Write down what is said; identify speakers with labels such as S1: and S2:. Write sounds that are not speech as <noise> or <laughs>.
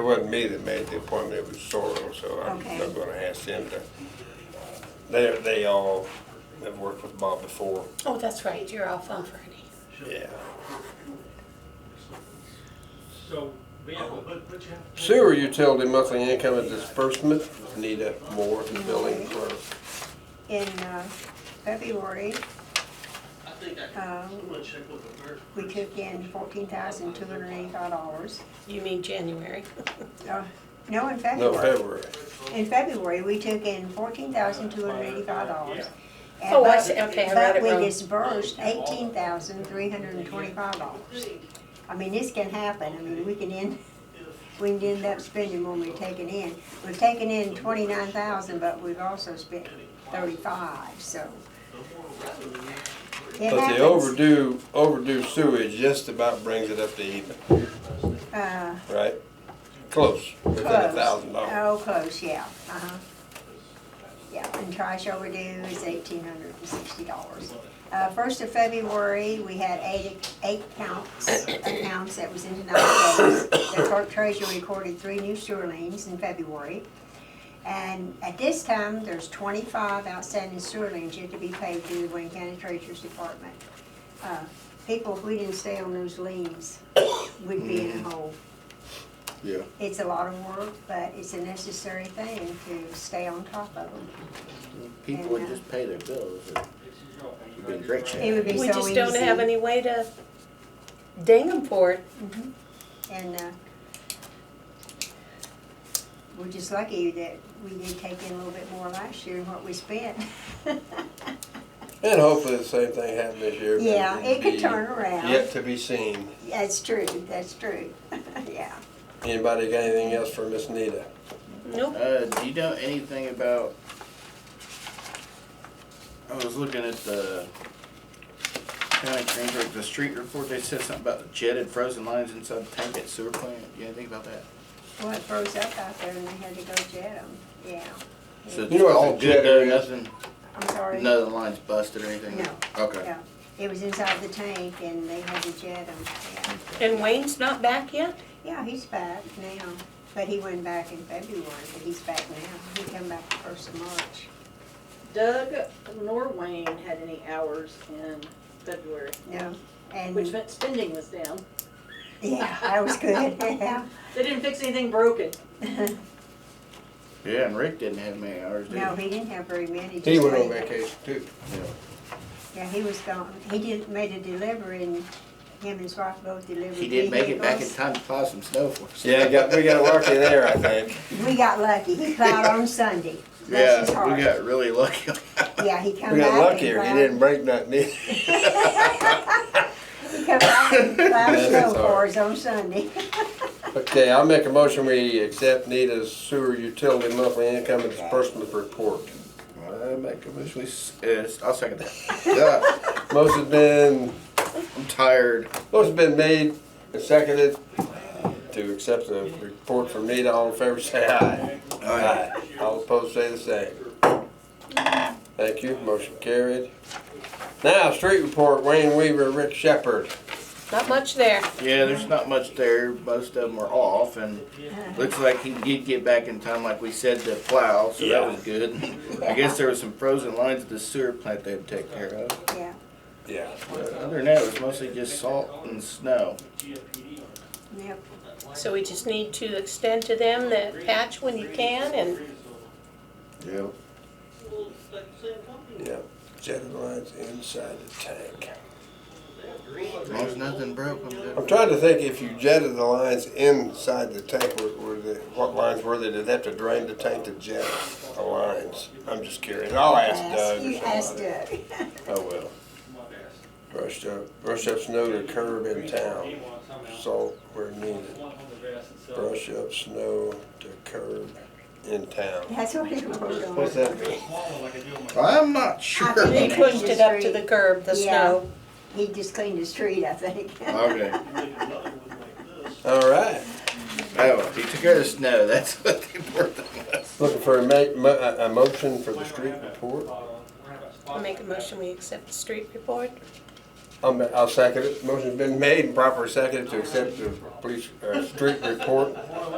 S1: wasn't me that made the appointment, it was Sorrel, so I'm
S2: Okay.
S1: not gonna ask them to. They, they all have worked with Bob before,
S3: Oh, that's right, you're off on Friday.
S1: yeah.
S4: So, yeah, Oh, but, but you have
S1: Sewer utility monthly income and disbursement, Nita Moore, building clerk.
S2: In uh, February,
S4: I think I,
S3: Uh,
S2: Um,
S4: I'm gonna check with the nurse.
S2: we took in fourteen thousand two hundred eighty-five dollars. Uh,
S3: You mean January?
S2: No, in
S1: No,
S2: February.
S1: February.
S2: In February, we took in fourteen thousand two hundred eighty-five dollars.
S3: Oh, I see. Okay, I read it
S2: But
S3: wrong.
S2: we disbursed eighteen thousand three hundred and twenty-five dollars. I mean, this can happen, I mean, we can end, we can end up spending more than we're taking in. We've taken in twenty-nine thousand, but we've also spent thirty-five, so. It
S1: But
S2: happens.
S1: the overdue, overdue sewage just about brings it up to even,
S2: Uh,
S1: right? Close, within a
S2: Close.
S1: thousand dollars.
S2: Oh, close, yeah, uh-huh. Yeah, and trash overdue is eighteen hundred and sixty dollars. Uh, first of February, we had eight, eight counts, accounts that was in denial notice. The clerk treasurer recorded three new sewer liens in February. And at this time, there's twenty-five outstanding sewer liens yet to be paid through the Wayne County Treasurer's Department. Uh, People, if we didn't stay on those liens, we'd be in a hole. Oh.
S1: Yeah.
S2: It's a lot of work, but it's a necessary thing to stay on top of them.
S5: People would just pay their bills. and We've been
S2: It
S5: drinking.
S2: would be so
S3: We
S2: easy.
S3: just don't have any way to ding them for it.
S2: Mm-hmm. And, uh, we're just lucky that we did take in a little bit more last year than what we spent. <laughs>
S1: And hopefully the same thing happened this year. but
S2: Yeah, it could
S1: be
S2: turn around.
S1: Yet to be seen.
S2: That's true, that's true, <laughs> yeah.
S1: Anybody got anything else for Miss Nita?
S3: Nope.
S5: Uh, do you know anything about? I was looking at the county Greensburg, the street report. They said something about the jetted frozen lines inside the tank at sewer plant. Do you know anything about that?
S2: Well, it froze up out there and they had to go jet them, yeah,
S5: So
S1: You know what
S5: all
S1: the
S5: good
S1: jet
S5: there,
S1: is?
S5: nothing,
S2: I'm sorry.
S5: none of the lines busted or anything.
S2: No.
S5: Okay.
S2: Yeah, it was inside the tank and they had to jet them, yeah.
S3: And Wayne's not back yet?
S2: Yeah, he's back now, but he went back in February, but he's back now. He come back the first of March.
S6: Doug Norwayne had any hours in February,
S2: No, and,
S6: which meant spending was down.
S2: yeah, that was good, <laughs> yeah.
S6: They didn't fix anything broken.
S5: Yeah, and Rick didn't have many hours, did he?
S2: No, he didn't have very many.
S1: He
S2: just
S1: went on
S2: waited.
S1: vacation too.
S2: Yeah, he was gone. He did, made a delivery and him and his wife both delivered
S5: He did make it back in
S2: vehicles.
S5: time to plow some snow for us.
S1: Yeah, I got, we got lucky there, I think.
S2: We got lucky. He plowed
S1: <laughs>
S2: on Sunday.
S5: Yeah,
S2: Bless his heart.
S5: we got really lucky. <laughs>
S2: Yeah, he come
S1: We got
S2: back and
S1: luckier, he
S2: plowed-
S1: didn't break nothing either.
S2: He come
S1: <laughs>
S2: back and plowed
S1: Bless his
S2: snow for
S1: heart.
S2: us on Sunday. <laughs>
S1: Okay, I'll make a motion, we accept Nita's sewer utility monthly income and disbursement report.
S5: I make a wish. We, s- uh, I'll
S2: <laughs>
S5: second that.
S1: Motion's been,
S5: Yeah, I'm tired.
S1: motion's been made and seconded to accept the report from Nita, all in favor, say aye. Aye. All opposed, say the same. Thank you, motion carried. Now, street report, Wayne Weaver, Rick Shepherd.
S3: Not much there.
S5: Yeah, there's not much there. Most of them are off, and looks like he did get back in time, like we said, to plow, so
S1: Yeah.
S5: that was good. I guess there was some frozen lines at the sewer plant they had to take care of.
S2: Yeah,
S1: Yeah.
S5: But other than that, it was mostly just salt and snow.
S4: GFPD on it.
S2: yep.
S3: So we just need to extend to them the patch when you can and
S5: Yep.
S4: Well, it's like the same company.
S1: Yeah, jetted lines inside the tank.
S4: They have green.
S5: As long as nothing broke, I'm good.
S1: I'm trying to think if you jetted the lines inside the tank, were, were they, what lines were they? Did they have to drain the tank to jet the lines? I'm just curious. I'll ask Doug
S2: You
S1: or
S2: asked
S1: somebody.
S2: Doug. <laughs>
S1: Oh, well.
S4: My bad.
S1: Brushed up, brushed up snow to curb in
S4: He
S1: town,
S4: wants something else.
S1: salt where needed.
S4: One on the grass itself.
S1: Brush up snow to curb in town.
S2: That's what he wrote on.
S1: What's that mean?
S4: Small one like I do on my.
S5: I'm not sure.
S2: I think
S3: he
S2: Yeah.
S3: pushed it up to the curb, the
S2: Yeah.
S3: snow.
S2: He just cleaned his street, I think.
S4: Make
S5: Okay.
S4: another one like this.
S1: All right.
S5: Oh, he took care of the snow. That's what the important thing was.
S1: Looking for a ma- mo- a, a motion for the
S4: We're
S1: street
S4: gonna have a
S1: report?
S4: spot on- we're gonna have a spot
S3: I'll make a
S4: like that.
S3: motion, we accept the street report.
S1: I'll, ma- I'll second it. Motion's been made and properly seconded to accept the police, uh, street report.